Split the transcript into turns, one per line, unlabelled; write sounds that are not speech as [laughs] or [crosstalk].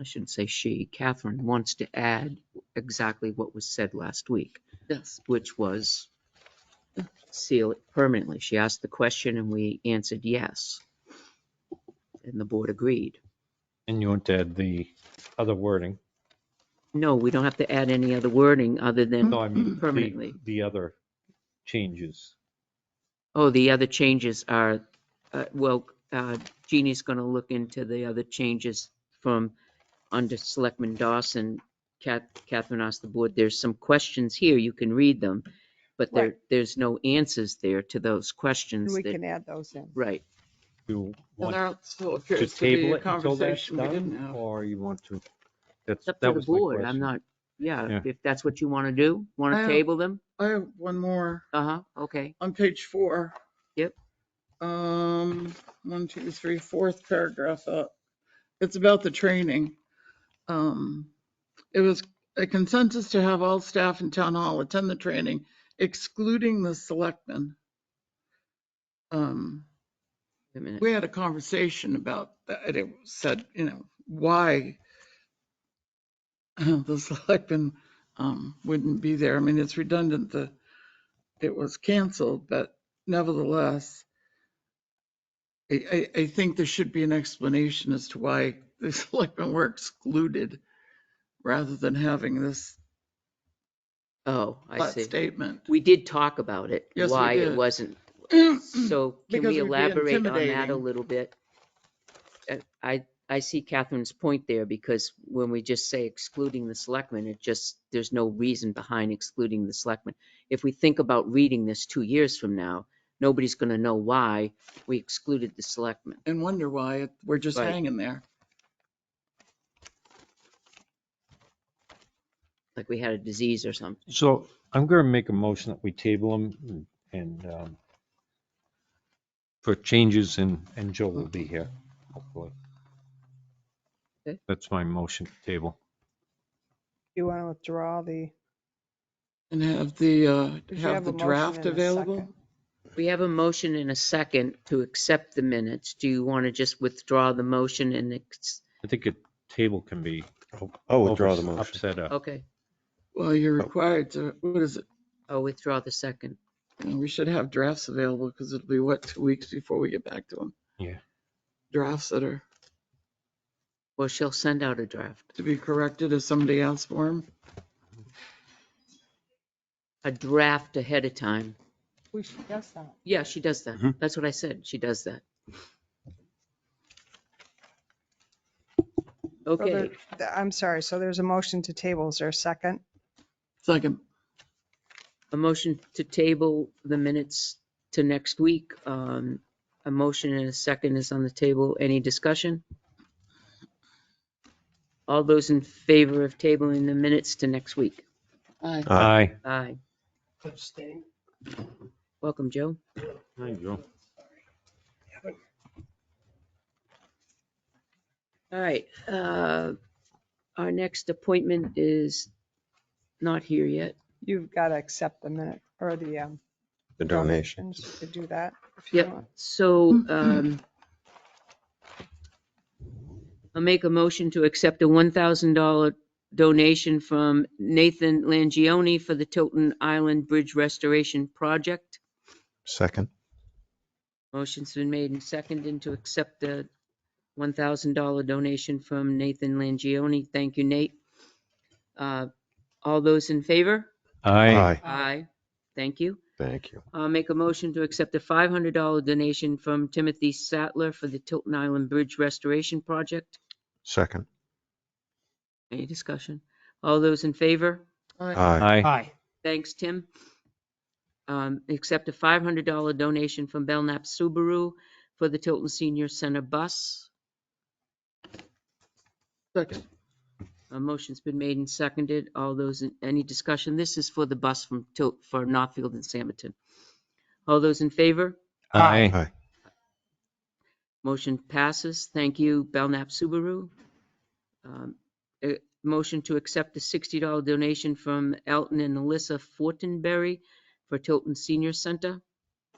I shouldn't say she, Catherine wants to add exactly what was said last week,
Yes.
which was seal it permanently. She asked the question and we answered yes. And the board agreed.
And you want to add the other wording?
No, we don't have to add any other wording other than
No, I mean, the,
permanently.
the other changes.
Oh, the other changes are, uh, well, uh, Jeannie's going to look into the other changes from under Selectman Dawson. Cath- Catherine asked the board, there's some questions here, you can read them, but there, there's no answers there to those questions
We
that,
can add those in.
right.
You
Well,
want
that still
to
appears to be
table
a
it until that's
conversation we didn't
done,
have.
or you want to? That's,
It's up to the
that was my
board, I'm
question.
not, yeah,
Yeah.
if that's what you want to do, want to
I don't-
table them?
I have one more
Uh-huh, okay,
on page four.
Yep.
Um, one, two, three, fourth paragraph up. It's about the training. Um, it was a consensus to have all staff in town hall attend the training, excluding the selectmen. Um,
wait a minute.
we had a conversation about that. It said, you know, why [laughs] the selectmen um, wouldn't be there. I mean, it's redundant that it was canceled, but nevertheless, I, I, I think there should be an explanation as to why the [laughs] selectmen were excluded rather than having this
Oh, I
flat
see.
statement.
We did talk about it,
Yes, we
why it
did.
wasn't [clears throat] So can
Mm, Because
we
it would be
elaborate on that a
intimidating.
little bit? Uh, I, I see Catherine's point there because when we just say excluding the selectmen, it just, there's no reason behind excluding the selectmen. If we think about reading this two years from now, nobody's going to know why we excluded the selectmen.
And wonder why it- we're just
Right.
hanging there.
Like we had a disease or something.
So I'm going to make a motion that we table them and um, for changes and, and Joe will be here, hopefully.
Okay.
That's my motion to table.
You want to withdraw the,
And have the, uh,
you
have
have
the
a motion
draft
and a
available?
second?
We have a motion and a second to accept the minutes. Do you want to just withdraw the motion and, ex-
I think a table can be.
I'll withdraw the
overs-
motion.
Upset a
okay,
Well, you're required to, what is it?
I'll withdraw the second.
You know, We should have drafts available because it'll be, what, two weeks before we get back to them?
Yeah.
Drafts that are
Well, she'll send out a draft.
to be corrected if somebody asks for them.
a draft ahead of time.
we should guess that.
Yeah, she does that.
Mhm.
That's what I said. She does that.
So there-
Okay,
th- I'm sorry, so there's a motion to table, is there a second?
Second,
a motion to table the minutes to next week. Um, a motion and a second is on the table. Any discussion? All those in favor of tabling the minutes to next week?
aye.
Aye.
Aye. Welcome, Joe.
Hi, Joe.
All right, uh, our next appointment is not here yet.
You've got to accept the minute, or the um,
The donation.
donations, you could do that. if you
Yep,
want.
so, um, I'll make a motion to accept a one thousand dollar donation from Nathan Langione for the Tilton Island Bridge Restoration Project.
Second.
Motion's been made and seconded to accept the one thousand dollar donation from Nathan Langione. Thank you, Nate. Uh, all those in favor?
Aye.
Aye. Thank you.
Thank you.
I'll make a motion to accept a $500 donation from Timothy Sattler for the Tilton Island Bridge Restoration Project.
Second.
Any discussion? All those in favor?
Aye.
Aye.
Thanks, Tim. Um, Accept a $500 donation from Belknap Subaru for the Tilton Senior Center bus.
Second,
A motion's been made and seconded. All those, in any discussion? This is for the bus from Tilt, for Northfield and Samerton. All those in favor?
Aye.
Motion passes. Thank you, Belknap Subaru. Um, a Motion to accept a $60 donation from Elton and Alyssa Fortenberry for Tilton Senior Center.